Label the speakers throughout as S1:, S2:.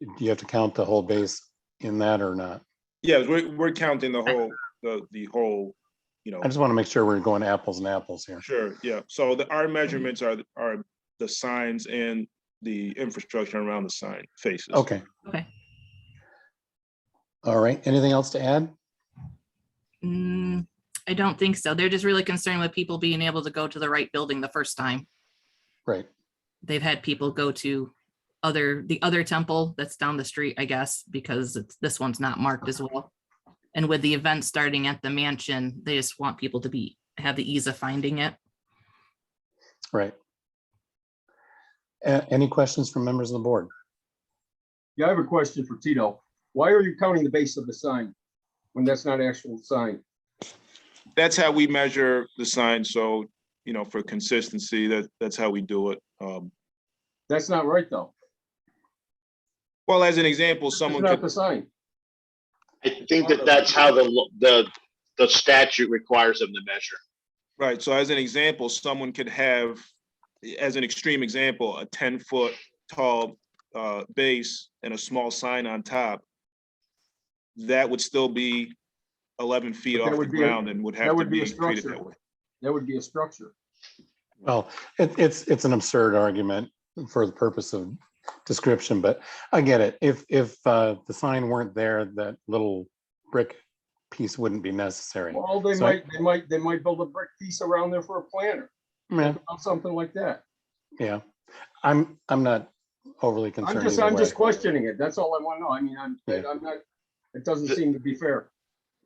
S1: do you have to count the whole base in that or not?
S2: Yeah, we're, we're counting the whole, the, the whole, you know,
S1: I just want to make sure we're going apples and apples here.
S2: sure, yeah. So the, our measurements are, are the signs and the infrastructure around the sign faces.
S1: Okay.
S3: Okay.
S1: All right, anything else to add?
S3: Mm, I don't think so. They're just really concerned with people being able to go to the right building the first time.
S1: Right,
S3: They've had people go to other, the other temple that's down the street, I guess, because it's, this one's not marked as well. And with the event starting at the mansion, they just want people to be, have the ease of finding it.
S1: right. A- any questions from members of the board?
S4: Yeah, I have a question for Tito. Why are you counting the base of the sign when that's not actual sign?
S2: That's how we measure the sign. So, you know, for consistency, that, that's how we do it. Um,
S4: That's not right, though.
S2: well, as an example,
S4: It's
S2: someone
S4: not
S2: could,
S4: the sign.
S5: I think that that's how the, lo- the, the statute requires them to measure.
S2: Right, so as an example, someone could have, as an extreme example, a ten-foot tall uh, base and a small sign on top. That would still be eleven feet
S4: But that
S2: off the
S4: would be a-
S2: ground and would have
S4: that
S2: to
S4: would be
S2: be
S4: a
S2: treated
S4: structure.
S2: that way.
S4: That would be a structure.
S1: Well, it, it's, it's an absurd argument for the purpose of description, but I get it. If, if, uh, the sign weren't there, that little brick piece wouldn't be necessary.
S4: Well, they
S1: So-
S4: might, they might, they might build a brick piece around there for a planter,
S1: Yeah,
S4: or something like that.
S1: yeah. I'm, I'm not overly
S4: I'm
S1: concerned
S4: just,
S1: either
S4: I'm
S1: way.
S4: just questioning it. That's all I want to know. I mean, I'm,
S1: Yeah.
S4: I'm not, it doesn't seem to be fair.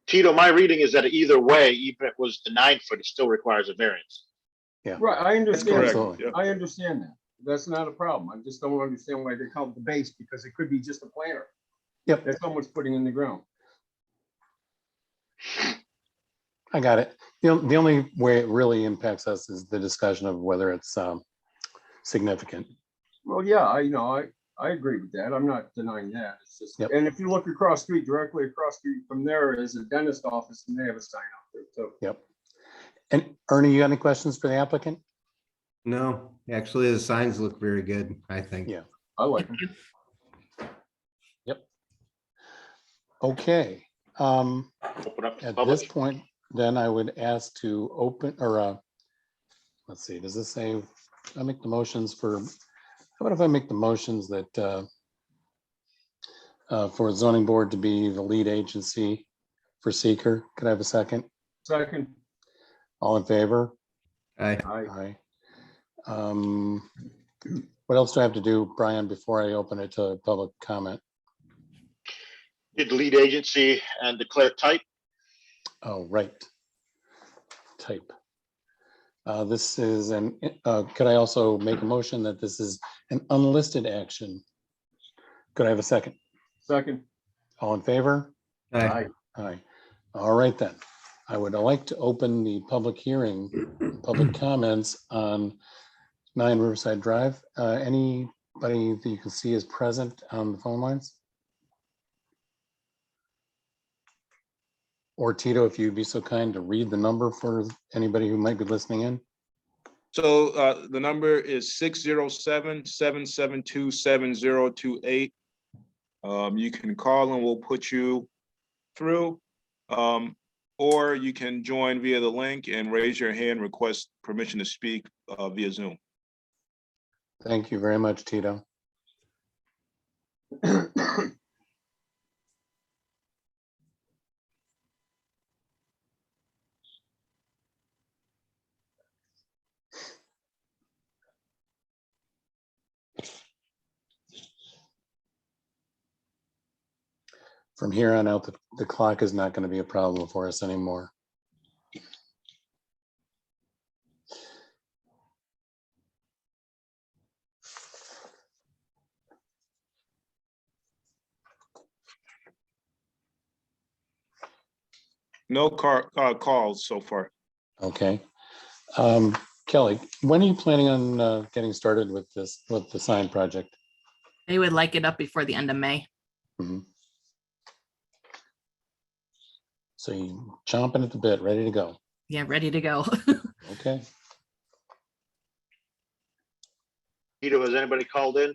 S5: Tito, my reading is that either way, even if it was the nine foot, it still requires a variance.
S4: Right, I
S2: That's
S4: understand. that.
S2: correct,
S1: Absolutely.
S2: yeah.
S4: I understand that. That's not a problem. I just don't understand why they call it the base, because it could be just a planter
S1: Yep,
S4: that someone's putting in the ground.
S1: I got it. The, on- the only way it really impacts us is the discussion of whether it's, um, significant.
S4: Well, yeah, I, you know, I, I agree with that. I'm not denying that. It's just,
S1: Yep.
S4: and if you look across street, directly across street from there is a dentist office and they have a sign out there too.
S1: And Ernie, you got any questions for the applicant?
S6: No, actually, the signs look very good, I think.
S1: Yeah.
S4: I like them.
S1: Okay, um,
S5: Open up to
S1: At this
S5: public.
S1: point, then I would ask to open or uh, let's see, does this say, I make the motions for, how about if I make the motions that uh, uh, for zoning board to be the lead agency for seeker? Could I have a second?
S4: Second,
S1: All in favor?
S6: I,
S4: I,
S1: Aye. Um, What else do I have to do, Brian, before I open it to public comment?
S5: Did lead agency and declare type.
S1: Oh, right. Type. Uh, This is an, uh, could I also make a motion that this is an unlisted action? Could I have a second?
S4: second,
S1: All in favor?
S6: I,
S4: I,
S1: Aye. All right then. I would like to open the public hearing, public comments on Nine Riverside Drive. Uh, Anybody that you can see is present on the phone lines? Or Tito, if you'd be so kind to read the number for anybody who might be listening in.
S2: So uh, the number is six zero seven, seven seven two, seven zero two eight. Um, you can call and we'll put you through. Um, or you can join via the link and raise your hand, request permission to speak uh, via Zoom.
S1: Thank you very much, Tito. From here on out, the- the clock is not going to be a problem for us anymore.
S2: No car, uh, calls so far.
S1: Okay. Um, Kelly, when are you planning on uh, getting started with this, with the sign project?
S3: They would like it up before the end of May.
S1: So you chomping at the bit, ready to go.
S3: Yeah, ready to go.
S1: Okay.
S5: Tito, has anybody called in?